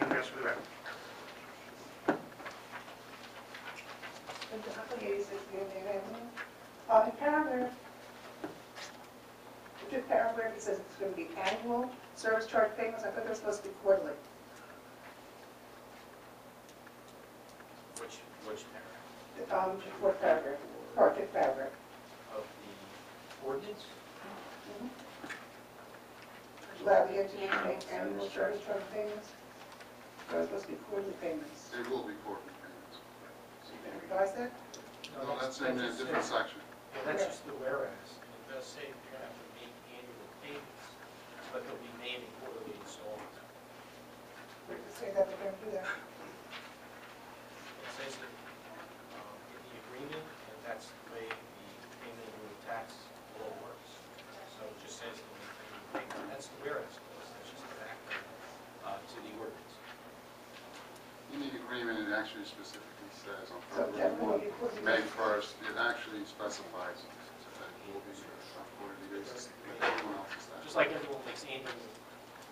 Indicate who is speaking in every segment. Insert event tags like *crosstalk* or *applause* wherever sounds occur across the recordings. Speaker 1: do this or that.
Speaker 2: Uh, in paragraph, the fifth paragraph, it says it's going to be annual service charge payments, I thought they were supposed to be quarterly.
Speaker 3: Which, which paragraph?
Speaker 2: Um, fourth paragraph, or fifth paragraph.
Speaker 3: Of the ordinance?
Speaker 2: Allow the engineer to make annual service charge payments, they're supposed to be quarterly payments.
Speaker 4: They will be quarterly payments.
Speaker 2: So you can revise that?
Speaker 4: No, Oh, that's in a different section.
Speaker 3: Yeah, that's just the whereas. It does say you're gonna have to make annual payments, but they'll be made in quarterly installments.
Speaker 2: We can say that we're going to do that.
Speaker 3: It says that um, in the agreement, and that's the way the payment of the tax law works. So it just says they'll make annual payments. That's the whereas clause, that's just an act uh, to the ordinance.
Speaker 4: In the agreement, it actually specifically says on
Speaker 2: So
Speaker 4: February
Speaker 2: that will
Speaker 4: 1,
Speaker 2: be quarterly.
Speaker 4: May 1st, it actually specifies that it will be on quarterly basis, but everyone else is that.
Speaker 3: Just like everyone makes annual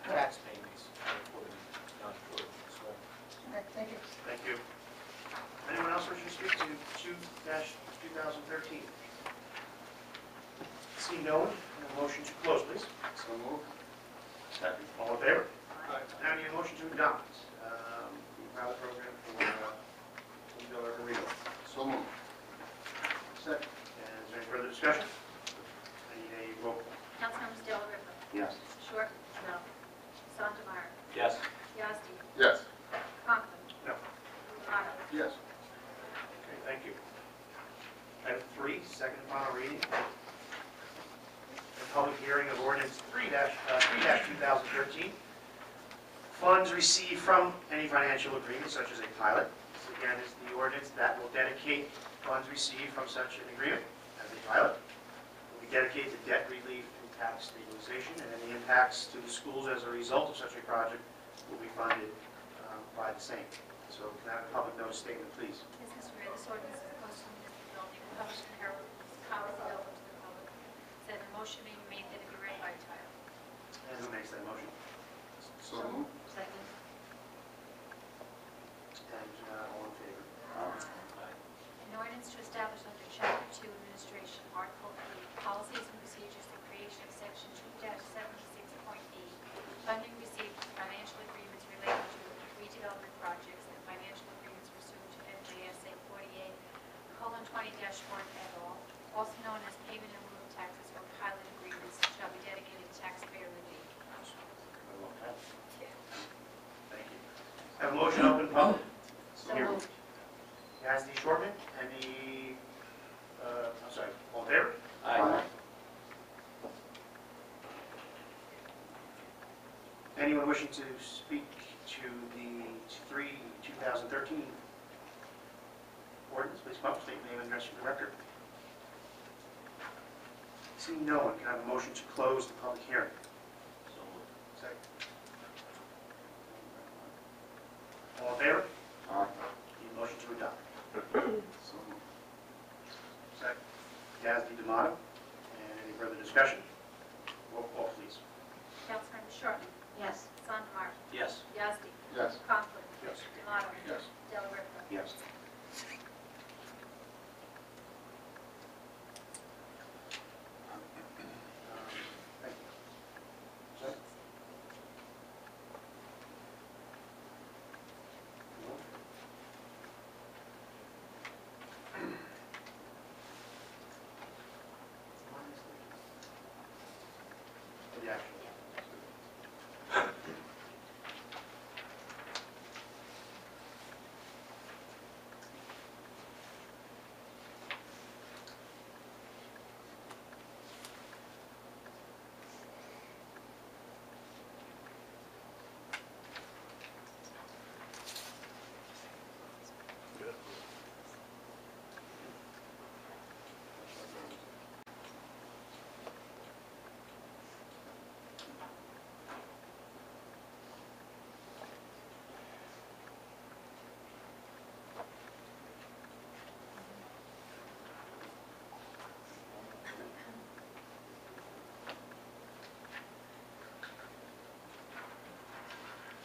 Speaker 3: tax payments on a quarterly, non-quarterly installment.
Speaker 2: Okay, Thank you.
Speaker 1: Thank you. Anyone else wishing to speak to two two thousand thirteen? See no one, a motion to close, please.
Speaker 4: So moved.
Speaker 1: Second. All in favor? Now I need a motion to adopt, um, the pilot program for, uh, Villa Arena.
Speaker 4: So moved.
Speaker 1: Second. And is there any further discussion? I need a roll call.
Speaker 5: Councilmember Del Rippe.
Speaker 1: Yes.
Speaker 5: Short. No. Sondemire.
Speaker 3: Yes.
Speaker 5: Yasti.
Speaker 4: Yes.
Speaker 5: Conklin.
Speaker 1: No.
Speaker 5: Otto.
Speaker 4: Yes.
Speaker 1: Okay, thank you. Item three, second and final reading. A public hearing of ordinance three dash, uh, three dash two thousand thirteen. Funds received from any financial agreement such as a pilot. This again is the ordinance that will dedicate funds received from such an agreement as a pilot. Will be dedicated to debt relief and tax stabilization, and any impacts to the schools as a result of such a project will be funded, uh, by the same. So can I have a public notice statement, please?
Speaker 5: Business Mayor, this ordinance is posted in the building, and published in the Herald, and is commonly available to the public. Said a motion being made that it be read by title.
Speaker 1: And who makes that motion?
Speaker 4: So moved.
Speaker 5: Second.
Speaker 1: And uh, all in favor?
Speaker 5: An ordinance to establish under Chapter 2 Administration, Article 8, Policies and Procedures, the creation of Section 2-76.8, funding received from financial agreements related to redevelopment projects and financial agreements pursuant to NJSA 48:20-1 et al., also known as payment in lieu of taxes or pilot agreements, shall be dedicated to taxpayer relief.
Speaker 1: Thank you. Have a motion open public.
Speaker 5: So
Speaker 1: Here.
Speaker 5: moved.
Speaker 1: Yasti Shortman and the, uh, I'm sorry, all in favor?
Speaker 3: Aye.
Speaker 1: Anyone wishing to speak to the three 2013 ordinance, please come up, state your name and address for the record. Seeing no one, can I have a motion to close the public hearing?
Speaker 3: So moved.
Speaker 1: Second. All in favor?
Speaker 4: Aye.
Speaker 1: Need a motion to
Speaker 3: *clears throat*
Speaker 1: adopt.
Speaker 4: So moved.
Speaker 1: Second. Yasti Damato. And any further discussion? Roll call, please.
Speaker 5: Councilmember Shortman. Yes. Sondemire.
Speaker 3: Yes.
Speaker 5: Yazdi.
Speaker 4: Yes.
Speaker 5: Conklin.